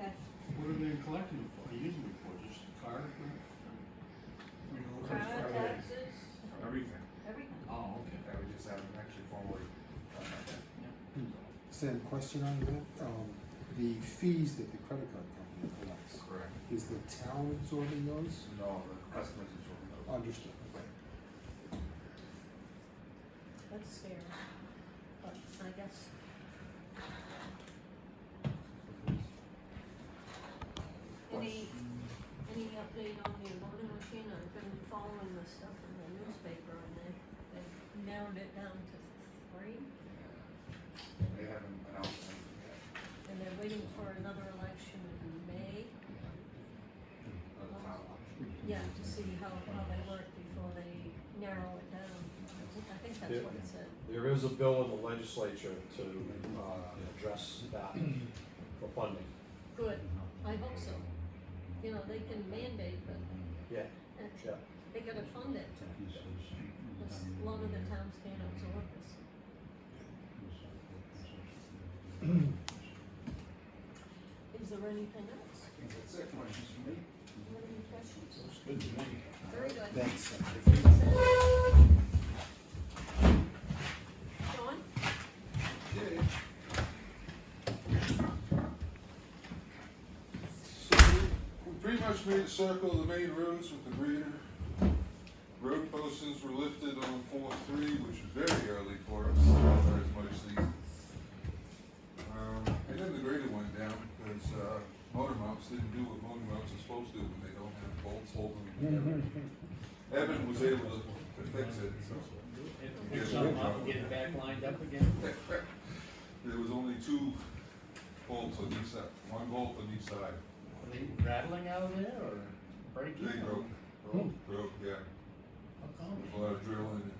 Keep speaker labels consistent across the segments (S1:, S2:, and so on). S1: What are they collecting it for, using it for, just the car? You know,
S2: Car
S1: it's-
S2: taxes,
S3: everything,
S2: everything.
S1: Oh, okay.
S3: that we just haven't actually formally done that yet.
S4: Sam, question on that, um, the fees that the credit card company collects,
S3: Correct.
S4: is the town absorbing those?
S3: No, the customers is what we know.
S4: Understood, okay.
S2: That's fair, but I guess. Any, any update on the voting machine? I've been following the stuff in the newspaper and they, they narrowed it down to three.
S3: They haven't announced anything yet.
S2: And they're waiting for another election in May,
S3: of the town election.
S2: yeah, to see how, how they work before they narrow it down. I think that's what it said.
S5: There is a bill in the legislature to, uh, address that for funding.
S2: Good, I hope so. You know, they can mandate, but
S5: Yeah,
S2: uh,
S5: yeah.
S2: they gotta fund it. Because a lot of the towns can't absorb this. Is there anything else?
S3: I think that's it, questions for me?
S2: Any questions?
S1: Looks good to me.
S2: Very good.
S4: Thanks.
S2: John?
S3: Yeah.
S6: So we pretty much made a circle of the main roads with the grader. Road postings were lifted on four three, which was very early for us, or as much season. Um, and then the grader went down because, uh, motor mounts didn't do what motor mounts are supposed to do when they don't have bolts holding them together. Evan was able to, to fix it, so.
S1: Pick some up and get it back lined up again.
S6: There was only two bolts on each side, one bolt on each side.
S1: Are they rattling out of there or breaking?
S6: They broke, broke, broke, yeah.
S1: How come?
S6: a lot of drilling and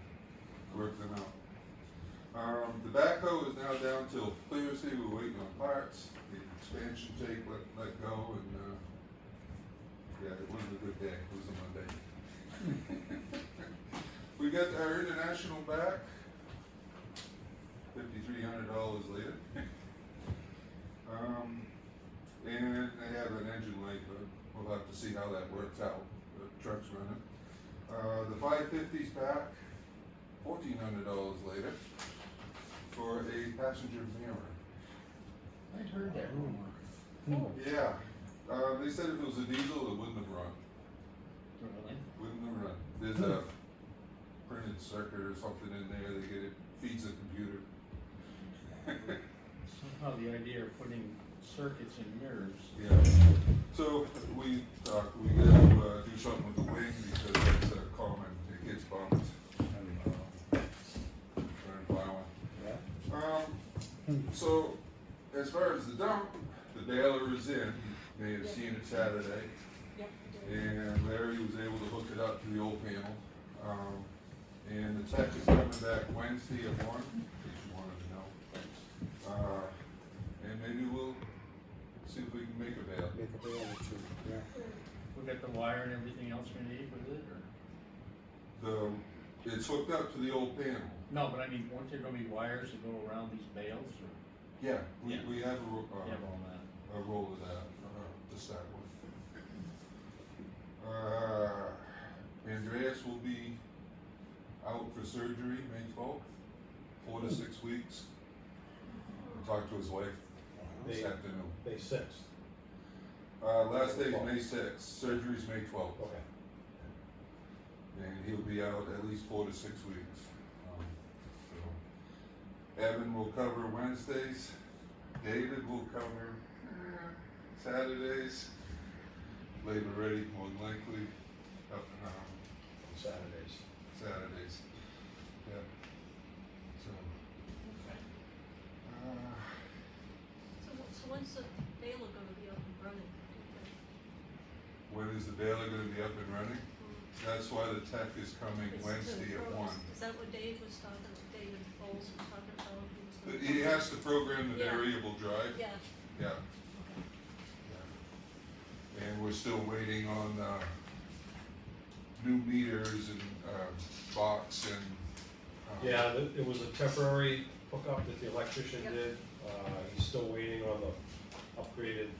S6: work them out. Um, the backhoe is now down till Thursday, we're waiting on parts, the expansion tape let, let go and, uh, yeah, it wasn't a good day, it was a Monday. We got our international back, fifty-three hundred dollars later. Um, and they have an engine light, but we'll have to see how that works out, the truck's running. Uh, the five fifty's back, fourteen hundred dollars later, for a passenger mirror.
S1: I heard that rumor.
S6: Yeah, uh, they said if it was a diesel, it wouldn't have run,
S1: Really?
S6: wouldn't have run. There's a printed circuit or something in there, they get it, feeds a computer.
S1: Somehow the idea of putting circuits in mirrors.
S6: Yeah, so we, uh, we gotta, uh, do something with the wing because that's a common, it gets bumped. Uh, Turn plowing. Um, so, as far as the dump, the baler is in, you may have seen it Saturday,
S2: Yep.
S6: and Larry was able to hook it up to the old panel. Um, and the tech is coming back Wednesday at one, if you wanted to know. Uh, and maybe we'll see if we can make a bail.
S4: Make a bail or two, yeah.
S1: We got the wire and everything else we need with it or?
S6: The, it's hooked up to the old panel.
S1: No, but I mean, weren't there gonna be wires that go around these bales or?
S6: Yeah. We,
S1: Yeah.
S6: we have a, ro-
S1: You
S6: uh,
S1: have all that.
S6: a roll of that uh, to start with. Uh, Andreas will be out for surgery May twelfth, four to six weeks. I Talked to his wife this
S5: They-
S6: afternoon.
S5: May sixth,
S6: Uh, last day is May sixth, surgery's May twelfth,
S5: okay.
S6: and he'll be out at least four to six weeks. Um, so Evan will cover Wednesdays, David will cover uh, Saturdays, Labor ready more than likely, up, um,
S5: Saturdays.
S6: Saturdays. Yeah. So. Uh,
S2: So, so when's the baler gonna be up and running?
S6: when is the baler gonna be up and running? That's why the tech is coming
S2: Is-
S6: Wednesday at
S2: is-
S6: one.
S2: Is that what Dave was talking, David Foles was talking about? He was
S6: But
S2: gonna-
S6: He has to program the
S2: Yeah.
S6: variable drive.
S2: Yeah,
S6: Yeah.
S2: okay.
S6: yeah. And we're still waiting on, uh, new meters and, uh, box and. uh,
S5: Yeah, th- it was a temporary hookup that the electrician
S2: Yep.
S5: did, uh, he's still waiting on the upgraded